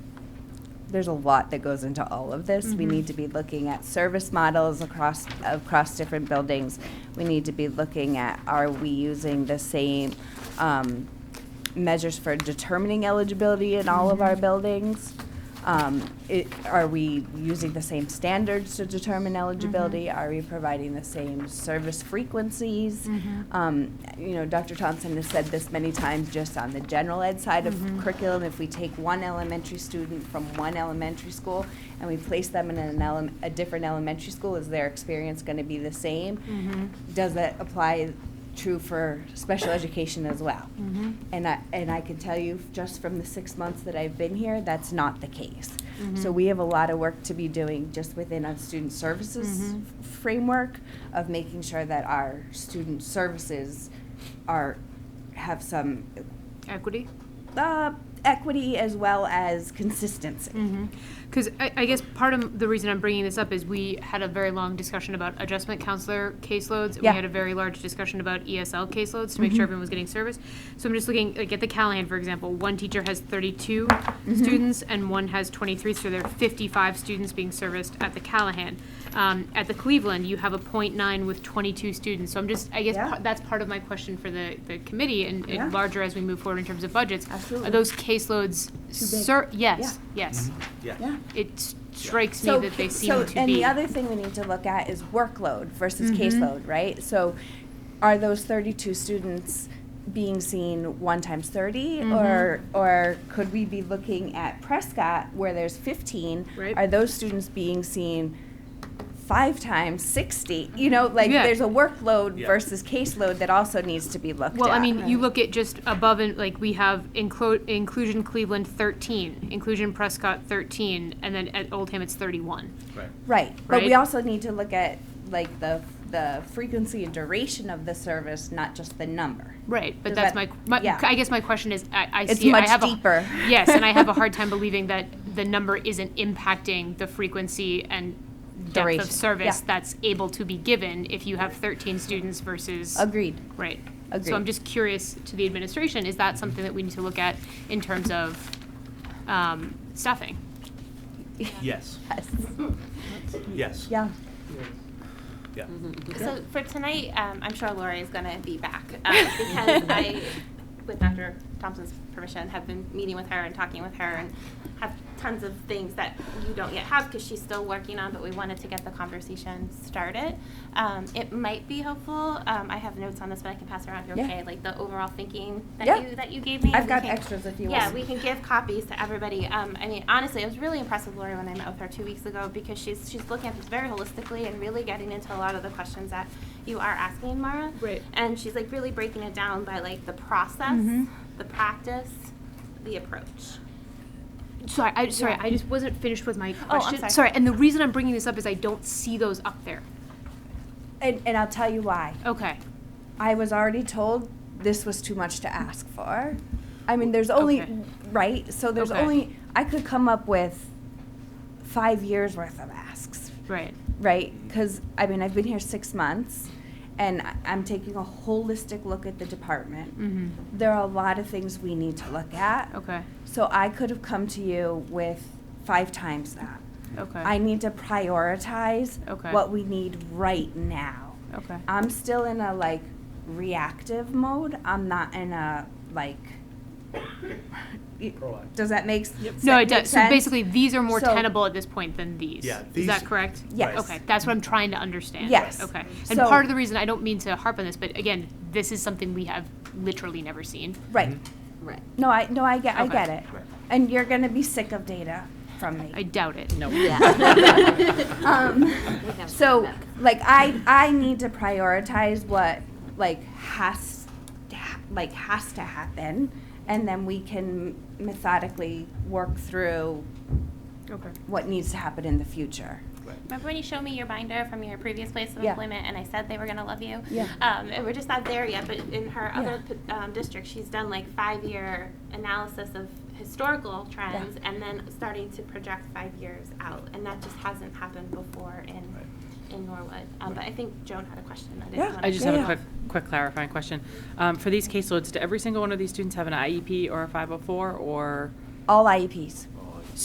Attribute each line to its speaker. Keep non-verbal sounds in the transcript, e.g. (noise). Speaker 1: there's a lot that goes into all of this. We need to be looking at service models across, across different buildings. We need to be looking at, are we using the same, um, measures for determining eligibility in all of our buildings? Um, it, are we using the same standards to determine eligibility? Are we providing the same service frequencies? Um, you know, Dr. Thompson has said this many times just on the general ed side of curriculum. If we take one elementary student from one elementary school and we place them in an elem- a different elementary school, is their experience going to be the same?
Speaker 2: Mm. Mm-hmm.
Speaker 1: Does that apply true for special education as well.
Speaker 2: Mm. Mm-hmm.
Speaker 1: And I, and I can tell you, just from the six months that I've been here, that's not the case. So we have a lot of work to be doing just within our student services f- framework of making sure that our student services are, have some
Speaker 2: Equity?
Speaker 1: uh, equity as well as consistency.
Speaker 2: Mm-hmm. Because I, I guess part of the reason I'm bringing this up is we had a very long discussion about adjustment counselor caseloads. and We
Speaker 1: Yeah. Mm-hmm.
Speaker 2: had a very large discussion about ESL caseloads to make sure everyone was getting service. So I'm just looking, like at the Callahan, for example, one teacher has 32
Speaker 1: Mm-hmm.
Speaker 2: students and one has 23, so there are 55 students being serviced at the Callahan. Um, at the Cleveland, you have a .9 with 22 students. So I'm just, I guess
Speaker 1: Yeah.
Speaker 2: pa- that's part of my question for the, the committee and, and
Speaker 1: Yeah.
Speaker 2: larger as we move forward in terms of budgets. Are
Speaker 1: Absolutely.
Speaker 2: those caseloads, ser- yes, yes
Speaker 3: Yeah.
Speaker 2: it s- strikes me
Speaker 1: So
Speaker 2: that they
Speaker 1: ca-
Speaker 2: seem
Speaker 1: so-
Speaker 2: to
Speaker 1: and
Speaker 2: be. Mm-hmm.
Speaker 1: the other thing we need to look at is workload versus caseload, right? So, are those thirty-two students being seen one times 30
Speaker 2: Mm-hmm.
Speaker 1: or or could we be looking at Prescott where there's fifteen?
Speaker 2: Right.
Speaker 1: Are those students being seen? Five times sixty, you know, like
Speaker 2: Yeah.
Speaker 1: there's a workload
Speaker 3: Yeah.
Speaker 1: versus caseload that also needs to be looked
Speaker 2: well,
Speaker 1: at.
Speaker 2: I mean, you look at just above and like we have inclo- inclusion Cleveland 13, inclusion Prescott 13, and then at Oldham it's 31.
Speaker 3: Right.
Speaker 1: Right, but we
Speaker 2: Right?
Speaker 1: also need to look at like the the frequency and duration of the service, not just the number.
Speaker 2: Right, but
Speaker 1: Does
Speaker 2: that's
Speaker 1: that-
Speaker 2: my, my
Speaker 1: yeah.
Speaker 2: I guess my question is I, I
Speaker 1: It's
Speaker 2: see I
Speaker 1: much
Speaker 2: have a-
Speaker 1: deeper.
Speaker 2: yes, and I have
Speaker 1: (laughs)
Speaker 2: a hard time believing that the number isn't impacting the frequency and depth
Speaker 1: Duration,
Speaker 2: of service
Speaker 1: yeah.
Speaker 2: that's able to be given if you have 13 students versus
Speaker 1: Agreed.
Speaker 2: Right. So I'm
Speaker 1: Agreed.
Speaker 2: just curious to the administration, is that something that we need to look at in terms of um, staffing?
Speaker 3: Yes,
Speaker 1: (laughs) Yes.
Speaker 3: yes.
Speaker 1: Yeah. Mm-hmm.
Speaker 3: Yeah.
Speaker 4: So for tonight, um, I'm sure Lori is going to be back
Speaker 2: Uh,
Speaker 4: um,
Speaker 1: (laughs)
Speaker 4: because I, with Dr. Thompson's permission, have been meeting with her and talking with her and have tons of things that you don't yet have because she's still working on, but we wanted to get the conversation started. Um, it might be helpful. Um, I have notes on this, but I can pass around if you're
Speaker 1: Yeah.
Speaker 4: okay. Like the overall thinking that
Speaker 1: Yeah.
Speaker 4: you that you gave me.
Speaker 1: I've
Speaker 4: We
Speaker 1: got
Speaker 4: can-
Speaker 1: extras if you
Speaker 4: yeah,
Speaker 1: want.
Speaker 4: we can give copies to everybody. Um, I mean, honestly, I was really impressed with Lori when I met with her two weeks ago because she's she's looking at this very holistically and really getting into a lot of the questions that you are asking, Mara.
Speaker 2: Right.
Speaker 4: And she's like really breaking it down by like the process,
Speaker 1: Mm-hmm.
Speaker 4: the practice, the approach.
Speaker 2: Sorry, I, sorry, I just wasn't finished with my
Speaker 4: I'm
Speaker 2: question.
Speaker 4: sorry.
Speaker 2: Oh, Sorry, and the reason I'm bringing this up is I don't see those up there.
Speaker 1: And, and I'll tell you why.
Speaker 2: Okay.
Speaker 1: I was already told this was too much to ask for. I mean, there's only,
Speaker 2: Okay.
Speaker 1: right? So there's
Speaker 2: Okay.
Speaker 1: only, I could come up with five years worth of asks,
Speaker 2: Right.
Speaker 1: right? Because, I mean, I've been here six months and I- I'm taking a holistic look at the department.
Speaker 2: Mm-hmm.
Speaker 1: There are a lot of things we need to look at.
Speaker 2: Okay.
Speaker 1: So I could have come to you with five times that.
Speaker 2: Okay.
Speaker 1: I need to prioritize
Speaker 2: Okay.
Speaker 1: what we need right now.
Speaker 2: okay.
Speaker 1: I'm still in a like reactive mode. I'm not in a like. y-
Speaker 3: Proactive.
Speaker 1: Does that make s- sense?
Speaker 2: no, it does. So basically, these are more
Speaker 1: So-
Speaker 2: tenable at this point than these.
Speaker 3: Yeah,
Speaker 2: is
Speaker 3: these-
Speaker 2: that correct?
Speaker 1: Yes.
Speaker 2: Okay, that's what I'm trying to understand.
Speaker 1: Yes.
Speaker 2: Okay. And
Speaker 1: So-
Speaker 2: part of the reason I don't mean to harp on this, but again, this is something we have literally never seen.
Speaker 1: right.
Speaker 5: Right.
Speaker 1: No, I no, I get, I
Speaker 2: Okay.
Speaker 1: get it.
Speaker 3: Right.
Speaker 1: And you're gonna be sick of data from me.
Speaker 2: I doubt it. No. (laughs)
Speaker 1: (laughs) um, so like I I need to prioritize what like has to ha- like has to happen, and then we can methodically work through
Speaker 2: Okay.
Speaker 1: what needs to happen in the future.
Speaker 4: Remember when you showed me your binder from your previous place of
Speaker 1: Yeah.
Speaker 4: employment and I said they were going to love you?
Speaker 1: Yeah.
Speaker 4: Um, and we're just not there yet, but in her
Speaker 1: Yeah.
Speaker 4: other p- um, district, she's done like five year analysis of historical trends and then starting to project five years out. And that just hasn't happened before in, in Norwood. Um, But I think Joan had a question. I didn't
Speaker 1: Yeah.
Speaker 4: wanna
Speaker 6: I just
Speaker 1: Yeah,
Speaker 6: have
Speaker 1: yeah.
Speaker 6: a quick, quick clarifying question. Um, E For these caseloads, do every single one of these students have an IEP oh or a 504 or
Speaker 1: All E IEPs.